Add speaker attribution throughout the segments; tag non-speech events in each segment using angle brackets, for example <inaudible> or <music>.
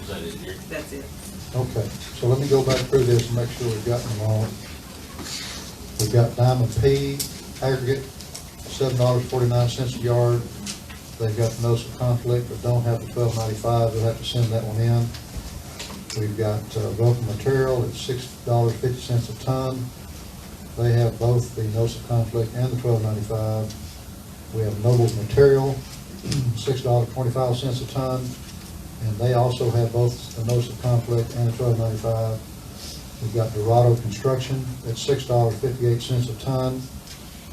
Speaker 1: Is that it here?
Speaker 2: That's it.
Speaker 3: Okay, so let me go back through this and make sure we've gotten them all. We've got Diamond P aggregate, seven dollars forty-nine cents a yard. They've got the notice of conflict, but don't have the twelve ninety-five, they'll have to send that one in. We've got uh, Vulcan Material at six dollars fifty cents a ton. They have both the notice of conflict and the twelve ninety-five. We have Noble Material, <clears throat> six dollars twenty-five cents a ton, and they also have both the notice of conflict and the twelve ninety-five. We've got Dorado Construction at six dollars fifty-eight cents a ton.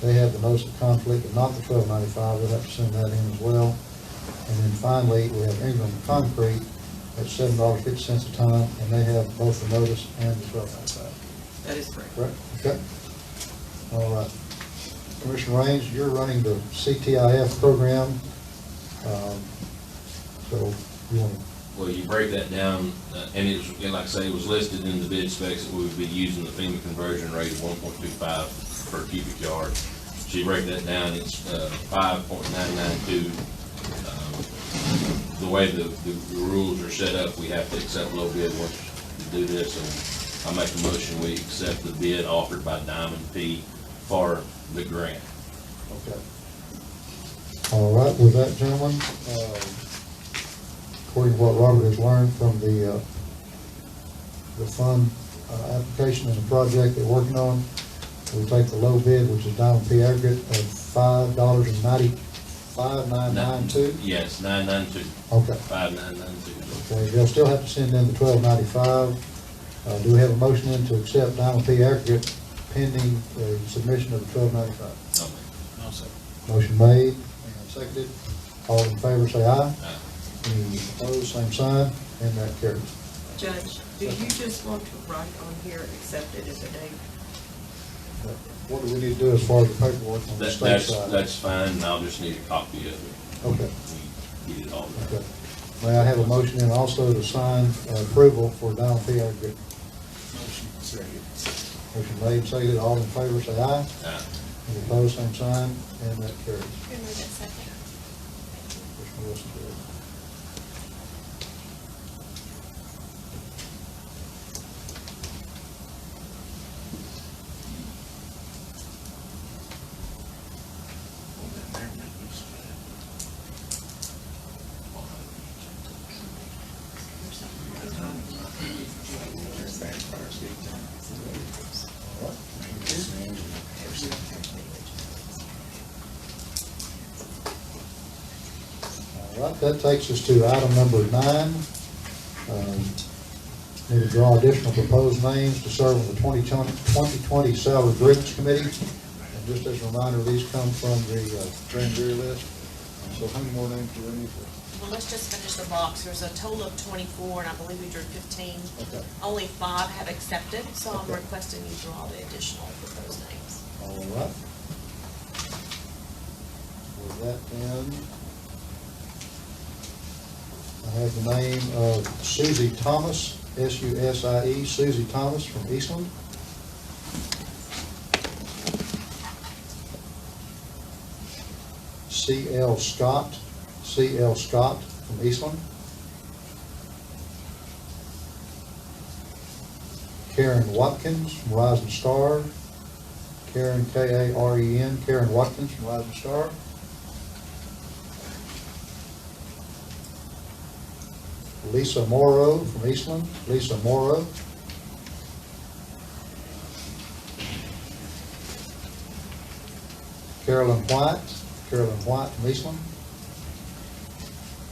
Speaker 3: They have the notice of conflict, but not the twelve ninety-five, we'll have to send that in as well. And then finally, we have Ingram Concrete at seven dollars fifty cents a ton, and they have both the notice and the twelve ninety-five.
Speaker 2: That is correct.
Speaker 3: Correct, okay. All right. Commissioner Raines, you're running the CTIF program. Um, So you want,
Speaker 1: Well, you break that down, uh, and it was, and like I say, it was listed in the bid specs that we would be using the FEMA conversion rate of one point two five per cubic yard. So you break that down, it's, uh, five point nine nine two. Um, The way the, the the rules are set up, we have to accept low bid once we do this, and I make a motion, we accept the bid offered by Diamond P for the grant.
Speaker 3: okay. All right, with that, gentlemen, um, according to what Robert has learned from the, uh, the fund uh, application and the project they're working on, we take the low bid, which is Diamond P aggregate of five dollars and ninety, five nine nine two.
Speaker 1: Yes, nine nine two,
Speaker 3: Okay.
Speaker 1: five nine nine two.
Speaker 3: Okay, they'll still have to send in the twelve ninety-five. Uh, do we have a motion then to accept Diamond P aggregate pending the submission of the twelve ninety-five? Motion made and seconded. All in favor, say aye. Any opposed, same sign, and that carries.
Speaker 2: Judge, do you just want to write on here, accept it as a date?
Speaker 3: But What do we need to do as far as the paperwork on the
Speaker 1: That,
Speaker 3: state
Speaker 1: that's,
Speaker 3: side?
Speaker 1: that's fine, and I'll just need a copy of it.
Speaker 3: Okay,
Speaker 1: We Get it all done.
Speaker 3: okay. May I have a motion then also to sign uh, approval for Diamond P aggregate? Motion made, seconded. All in favor, say aye.
Speaker 1: Uh,
Speaker 3: Any opposed, same sign, and that carries.
Speaker 4: Who moved it second?
Speaker 3: Commissioner Wilson did.
Speaker 2: Uh,
Speaker 3: All right, that takes us to item number nine. Um, Need to draw additional proposed names to serve on the 2020 2020 Salary Grievance Committee. And just as a reminder, these come from the uh, grand jury list. So how many more names do we need for?
Speaker 5: Well, let's just finish the box. There's a total of twenty-four, and I believe we drew fifteen.
Speaker 3: Okay.
Speaker 5: Only five have accepted, so I'm
Speaker 3: Okay.
Speaker 5: requesting you draw the additional for those names.
Speaker 3: All right. With that then, I have the name of Susie Thomas, S-U-S-I-E, E, Susie Thomas from Eastland. C.L. Scott, C.L. Scott from Eastland. Karen Watkins from Rising Star. Karen, K-A-R-E-N, E Karen Watkins from Rising Star. Lisa Morrow from Eastland, Lisa Morrow. Carolyn White, Carolyn White from Eastland.